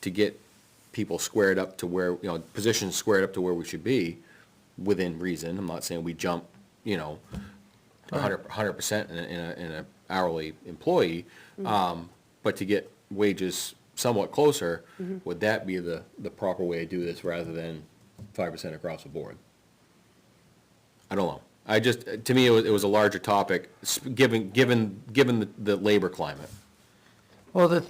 to get people squared up to where, you know, positions squared up to where we should be within reason. I'm not saying we jump, you know, a hundred, a hundred percent in a, in a, in a hourly employee. Um, but to get wages somewhat closer, would that be the, the proper way to do this rather than five percent across the board? I don't know. I just, to me, it was, it was a larger topic, sp- given, given, given the, the labor climate. Well, the,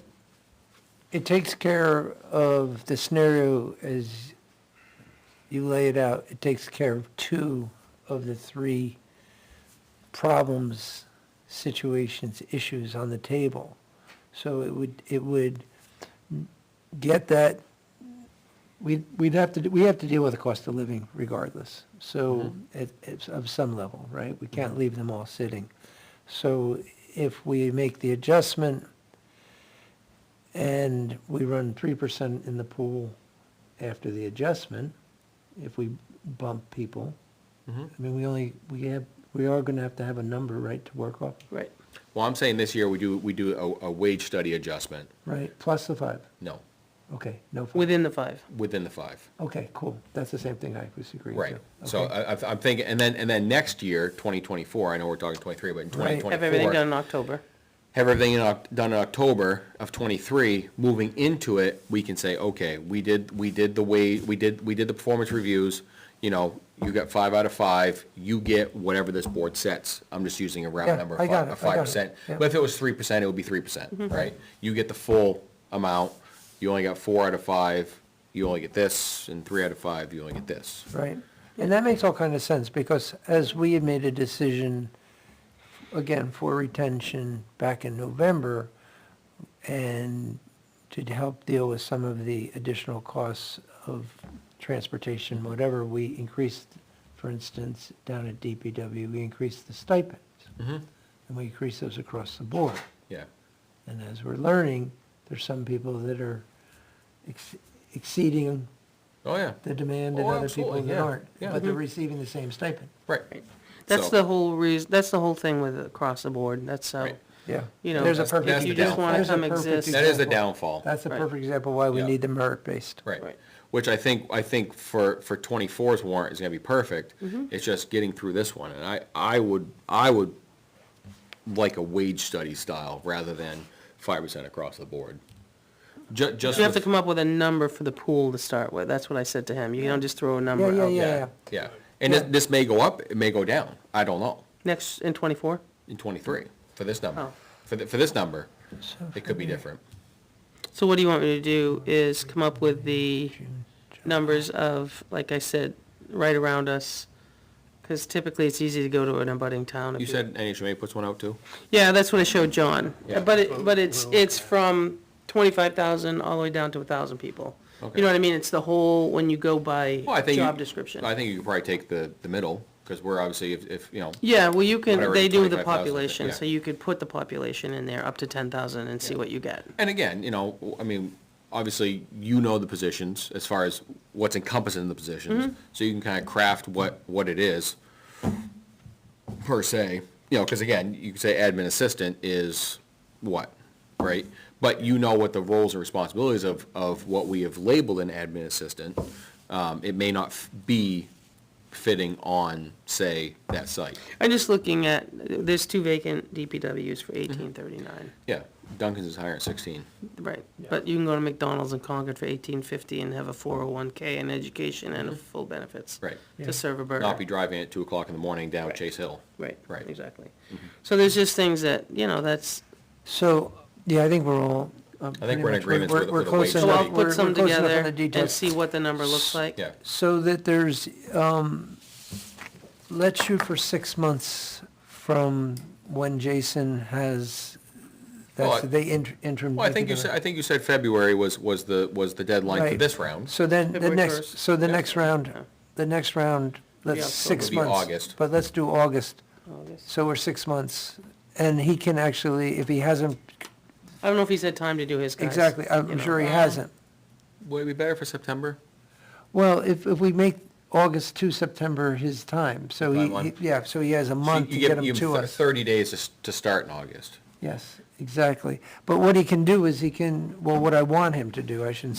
it takes care of the scenario as you lay it out. It takes care of two of the three problems, situations, issues on the table. So it would, it would get that, we'd, we'd have to, we have to deal with the cost of living regardless. So at, it's of some level, right? We can't leave them all sitting. So if we make the adjustment and we run three percent in the pool after the adjustment, if we bump people, Mm-hmm. I mean, we only, we have, we are gonna have to have a number, right, to work off, Right. Well, I'm saying this year, we do, we do a, a wage study adjustment. right? Plus the five, No, okay, no, five. Within the five. within the five. okay, cool, that's the same thing I was agreeing to. Right. So Okay. I, I- I'm thinking, and then, and then next year, 2024, I know we're talking 23, but in Right. Have Have everything 2024, done in October. have everything in Oc- done in October of 23, moving into it, we can say, okay, we did, we did the way, we did, we did the performance reviews, you know, you got five out of five, you get whatever this board sets. I'm just using a Yeah, round number, I of got fi- it, of I got it, 5%. yeah. Mm-hmm. But if it was 3%, it would be 3%, right? You get the full amount, you only got four out of five, you only get this, and three out of five, you only get this. Right, and that makes all kind of sense, because as we had made a decision, again, for retention back in November, and to help deal with some of the additional costs of transportation, whatever, we increased, for instance, down at DPW, we increased the stipends. And we increased those across the board. Yeah. And as we're learning, there's some people that are ex- exceeding Oh, yeah. the demand and Oh, other people absolutely, that yeah, aren't, yeah. but they're Mm-hmm. receiving the same stipend. Right. That's So- the whole reason, that's the whole thing with across the board. That's how, Right. Yeah. you know, There's a if perfect. that's the you just downfall. want to there's a come perfect exist. That is the example. downfall. That's a Right. perfect example why we Yeah. need the merit-based. Right. Right. Which I think, I think for, for 24's warrant is gonna be perfect. Mm-hmm. It's just getting through this one. And I, I would, I would like a wage study style rather than five percent across the board. Ju- just You have to with- come up with a number for the pool to start with. That's what I said to him. You don't just throw a number yeah, out. yeah. Yeah. And this, Yeah. this may go up, it may go down. I don't know, Next, in twenty-four? in twenty-three, for this number. Oh. For, th- for this number, So it could be different. So what do you want me to do is come up with the numbers of, like I said, right around us? Because typically it's easy to go to an abutting town. if You said NHMA puts one out too? Yeah, that's what I showed John. Yeah. But it, but it's, it's from twenty-five thousand all the way down to a thousand people. Okay. You know what I mean? It's the whole, when you go by Well, I think. you- job description. I think you could probably take the, the middle, because we're obviously, if, if, you know, Yeah, well, you can, Whatever, they do the 25,000, population, yeah. so you could put the population in there up to ten thousand and see what you get. And again, you know, I mean, obviously, you know the positions as far as what's encompassed in the positions, so you can kind of craft what, what it is per se, you know, because again, you could say admin assistant is what, right? But you know what the roles and responsibilities of, of what we have labeled an admin assistant. Um, it may not f- be fitting on, say, that site. I'm just looking at, there's two vacant DPWs for eighteen thirty-nine, Yeah, Duncan's is higher at sixteen. right? But you can go to McDonald's in Concord for eighteen fifty and have a four oh one K and education and a full benefits. Mm-hmm. Right. Yeah. To serve a burger. Not be driving at two o'clock in the morning down Chase Hill. Right, Right. exactly. So there's just things that, you know, that's, So, yeah, I think we're all. I we're in agreements with- We're with the close wage so enough, I'll study. we're we're put some close enough on the together and details. see what the number looks like. Yeah. So that there's, um, let's shoot for six months from when Jason has, Well, that's I- the inter- interim. Well, I think you said, I think you said February was, was the, was the deadline for Right. this round. So then, the February next, 1st. so the Yeah. next round, Yeah. the next round, Yeah, let's six It'll be months. August. But let's do August, August. so we're six months, and he can actually, if he hasn't, I don't know if he's had time to do his guys. exactly, you I'm know. sure he hasn't. Would it be better for September? Well, if, if we make August to September his time, so he, Timeline. he- yeah, so he has a So month you to give- get you him give to thir- us. Thirty days to, s- to start in August. Yes, exactly. But what he can do is he can, well, what I want him to do, I shouldn't say